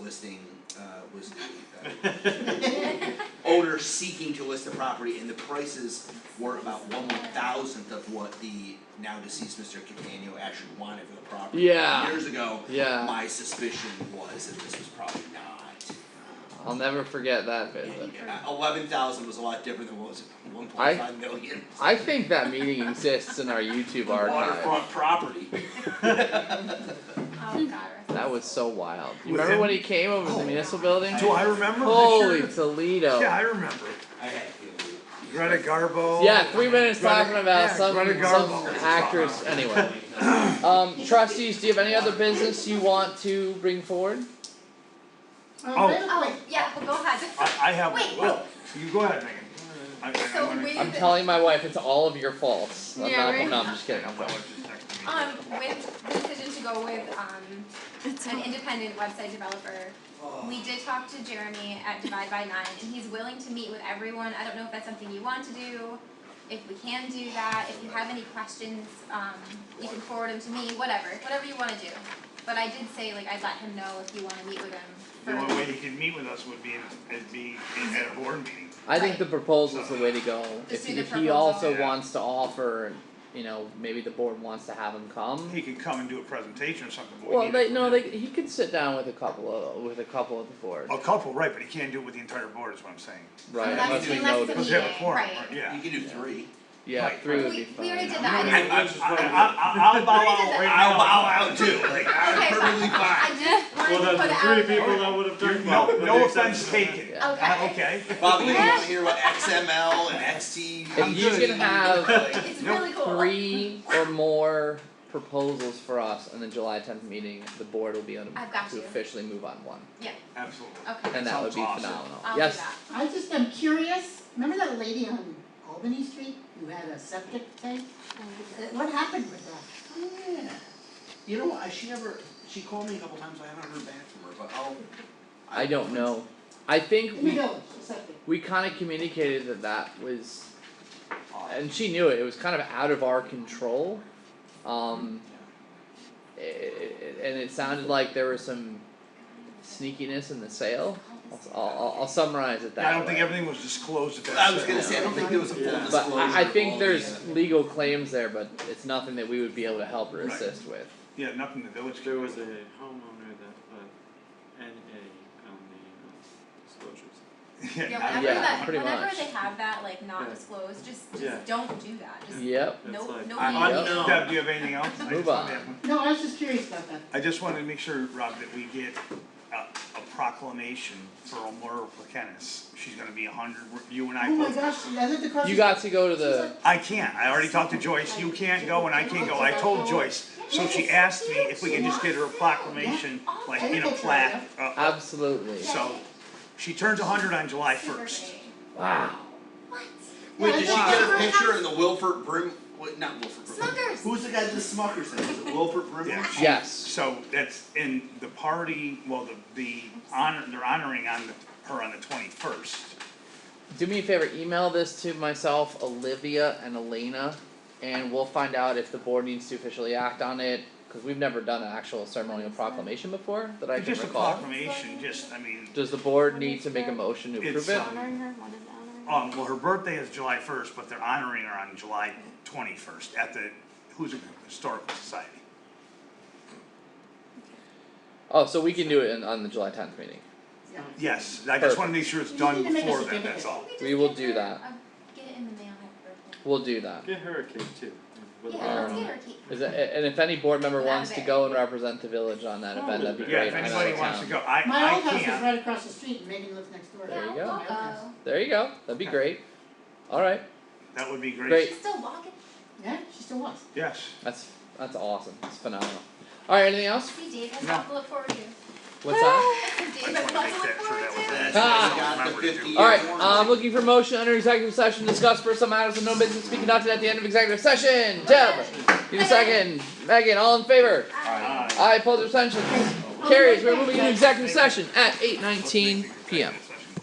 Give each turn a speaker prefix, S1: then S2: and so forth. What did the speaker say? S1: listing uh was the uh owner seeking to list the property and the prices were about one one thousandth of what the now deceased Mr. Catania actually wanted for the property.
S2: Yeah.
S1: Years ago,
S2: Yeah,
S1: my suspicion was that this was probably not. uh,
S2: I'll never forget that visit.
S1: Eleven thousand was a lot different than what was one point five million.
S2: I think that meeting exists in our YouTube archive.
S1: Waterfront property.
S3: Oh god,
S2: That was so wild. You
S4: With
S2: remember
S4: him?
S2: when he came over to the
S1: Oh.
S2: municipal building?
S4: Do I remember?
S2: Holy
S4: Sure. Yeah,
S2: Toledo.
S4: I remember.
S1: I had a feeling.
S4: Greta Garbo.
S2: Yeah, three minutes
S4: Greta-
S2: talking about
S4: yeah,
S2: some
S4: Greta
S2: some
S4: Garbo.
S2: actress. Anyway, um, trustees, do you have any other business you want to bring forward?
S4: Oh.
S3: Oh, yeah, well, go ahead.
S4: I, I have.
S3: Wait.
S4: Well, you go ahead, Megan. I, I, I
S3: So
S4: wanna-
S3: with
S2: I'm telling my wife it's all of your faults. I'm
S3: Yeah,
S2: not,
S3: right.
S2: no, I'm just kidding. I'm
S4: That
S2: playing.
S4: was just next to me.
S3: um with the decision to go with um an independent website developer, we did talk to Jeremy at Divide by Nine and he's willing to meet with everyone. I don't know if that's something you want to do, if we can do that, if you have any questions, um you can forward them to me, whatever, whatever you wanna do. But I did say like I'd let him know if you wanna meet with him
S4: The
S3: for
S4: only way he could meet with us would be in, it'd be in, at a board meeting.
S2: I think the proposal's the way to go.
S3: Just
S2: If,
S3: do the
S2: if he
S3: proposal.
S2: also
S4: Yeah.
S2: wants to offer, you know, maybe the board wants to have him come.
S4: He could come and do a presentation or something. but we
S2: Well,
S4: need
S2: they
S4: to-
S2: no, they he could sit down with a couple of with a couple of the board,
S4: A couple, right? But he can't do it with the entire board. Is what I'm saying.
S2: right?
S1: Unless-
S2: Unless we
S1: unless
S2: know
S3: it's a
S2: that-
S4: Because they have a
S3: Yeah,
S4: quorum,
S3: right.
S4: right? Yeah.
S1: You can do three.
S2: Yeah,
S4: Right.
S2: three would
S3: We-
S2: be
S3: we already
S2: fine.
S3: did
S4: I,
S3: that.
S4: I, I, will bow out right
S1: I'll
S4: now.
S1: bow out too, like,
S3: Okay,
S1: I'm
S3: fine.
S1: perfectly fine.
S3: I just
S5: Well,
S3: wanted to
S5: that's
S3: put
S5: the
S3: it
S5: three
S3: out there.
S5: people that Ah, would have done
S4: No,
S5: that.
S4: no offense taken.
S2: Yeah.
S4: Uh,
S3: Okay.
S4: okay.
S1: Bobby, you wanna hear about XML and XT?
S2: If you can have
S3: It's
S4: Nope.
S3: really cool.
S2: three or more proposals for us in the July tenth meeting, the board will be able
S3: I've got
S2: to
S3: you.
S2: officially move on one,
S4: Absolutely.
S3: Okay.
S2: and that would
S4: Sounds
S2: be
S4: awesome.
S2: phenomenal.
S3: I'll
S2: Yes.
S3: do that.
S6: I just am curious, remember that lady on Albany Street who had a septic tank? Uh, What happened with that?
S1: Yeah. You know, I, she never, she called me a couple times, I haven't heard back from her, but I'll.
S2: I don't know. I think
S6: In the
S2: we
S6: village, the septic.
S2: we kind of communicated that that was, and she knew it. It was kind of out of our control, um, i- i- i- and it sounded like there was some sneakiness in the sale. I'll, I'll, I'll summarize it that
S4: I don't think
S2: way.
S4: everything was disclosed at that.
S1: I was gonna
S4: session.
S1: say, I don't think there was a full
S5: Yeah.
S1: disclosure.
S5: But
S2: But I, I think
S1: of all
S2: there's
S1: the, uh,
S2: legal claims there, but it's nothing that we would be able to help or
S4: Right.
S2: assist with.
S4: Yeah, nothing the village could
S5: There
S4: do.
S5: was a homeowner that put NA on the uh, disclosures.
S3: Yeah,
S4: not-
S3: whenever
S2: Yeah,
S3: that,
S2: pretty
S3: whenever
S2: much.
S3: they have that like not
S5: Yeah.
S3: disclosed, just
S5: Yeah.
S3: just don't do that. Just
S2: Yep.
S5: It's
S3: no
S5: like-
S3: no.
S1: I-
S3: legal.
S2: Yep.
S1: unknown.
S4: Deb, do you have anything else? I
S2: Move
S4: just wanted to
S2: on.
S4: have one.
S6: No, I was just curious about that.
S4: I just wanted to make sure, Rob, that we get a, a proclamation for Elmore Placanis. She's gonna be a hundred, you and I
S6: Oh
S4: both.
S6: my gosh, I lived across.
S2: You
S6: the-
S2: got to go to the.
S4: I can't, I already talked to Joyce, you can't go and I can't go, I told Joyce, so she asked me if we could just get her a proclamation, like in a plaque, uh, uh,
S2: Absolutely.
S4: so. She turns a hundred on July first,
S2: Wow.
S3: What?
S1: Wait, did she get a
S3: Wow.
S1: picture in the Wilford Brim, what, not Wilford Brim.
S3: Smuckers.
S1: Who's the guy that the Smuckers said, was it Wilford Brim?
S4: Yeah.
S2: Yes.
S4: so that's in the party, well, the, the honor, they're honoring on the, her on the twenty-first.
S2: Do me a favor, email this to myself, Olivia, and Elena, and we'll find out if the board needs to officially act on it. Because we've never done an actual ceremonial proclamation before that I can
S4: Just a
S2: recall.
S4: proclamation, just, I mean,
S2: Does the board need to make a motion to
S4: It's,
S2: approve it?
S4: um,
S7: honoring her, what is honoring her?
S4: Um, well, her birthday is July first, but they're honoring her on July twenty-first at the Hoosier Historical Society.
S2: Oh, so we can do it in, on the July tenth meeting.
S6: Yeah.
S4: Yes, I just wanna make sure it's done
S6: You need to make a
S4: before then, that's all.
S3: just
S2: We will
S3: get
S2: do
S3: her
S2: that.
S3: a- Get it in the mail at
S2: We'll do that.
S5: Get her a cake too. with
S3: birthday.
S2: Yeah,
S3: Yeah,
S5: her
S3: let's
S5: on
S3: get
S5: it.
S3: her a cake.
S2: Is it, and if any board member
S3: Love
S2: wants to
S3: it.
S2: go and represent the village on that event, that'd be
S4: Yeah,
S2: great.
S4: if
S2: I'm out of
S4: anybody wants to
S2: town.
S4: go, I,
S6: My
S4: I
S6: old house is
S4: can't,
S6: right across the street, and Megan lives next door.
S2: There you
S3: Yeah,
S2: go.
S3: we'll
S2: There you go, that'd be
S4: Okay.
S2: great. Alright,
S4: that would be
S2: Great.
S4: great,
S3: She's still walking.
S6: Yeah, she still was.
S4: yes.
S2: that's, that's awesome, that's phenomenal. Alright, anything else?
S3: See Dave has
S4: No.
S3: lots to look forward to.
S2: What's that?
S3: Dave
S4: I
S3: has
S4: just wanna make
S3: lots to look
S4: that sure
S3: forward
S4: that was that.
S3: to.
S2: Ah.
S4: I don't remember to do.
S1: Got the 50
S2: Alright,
S1: Yeah.
S2: I'm looking for motion under executive session, to discuss personal matters and no business to be conducted at the end of executive session. Deb, need a second, Megan, all in favor?
S4: Aye.
S2: Aye, opposed, abstentions, carries, we're moving into executive session at eight nineteen
S4: Ah,
S2: PM.
S4: Let's make it-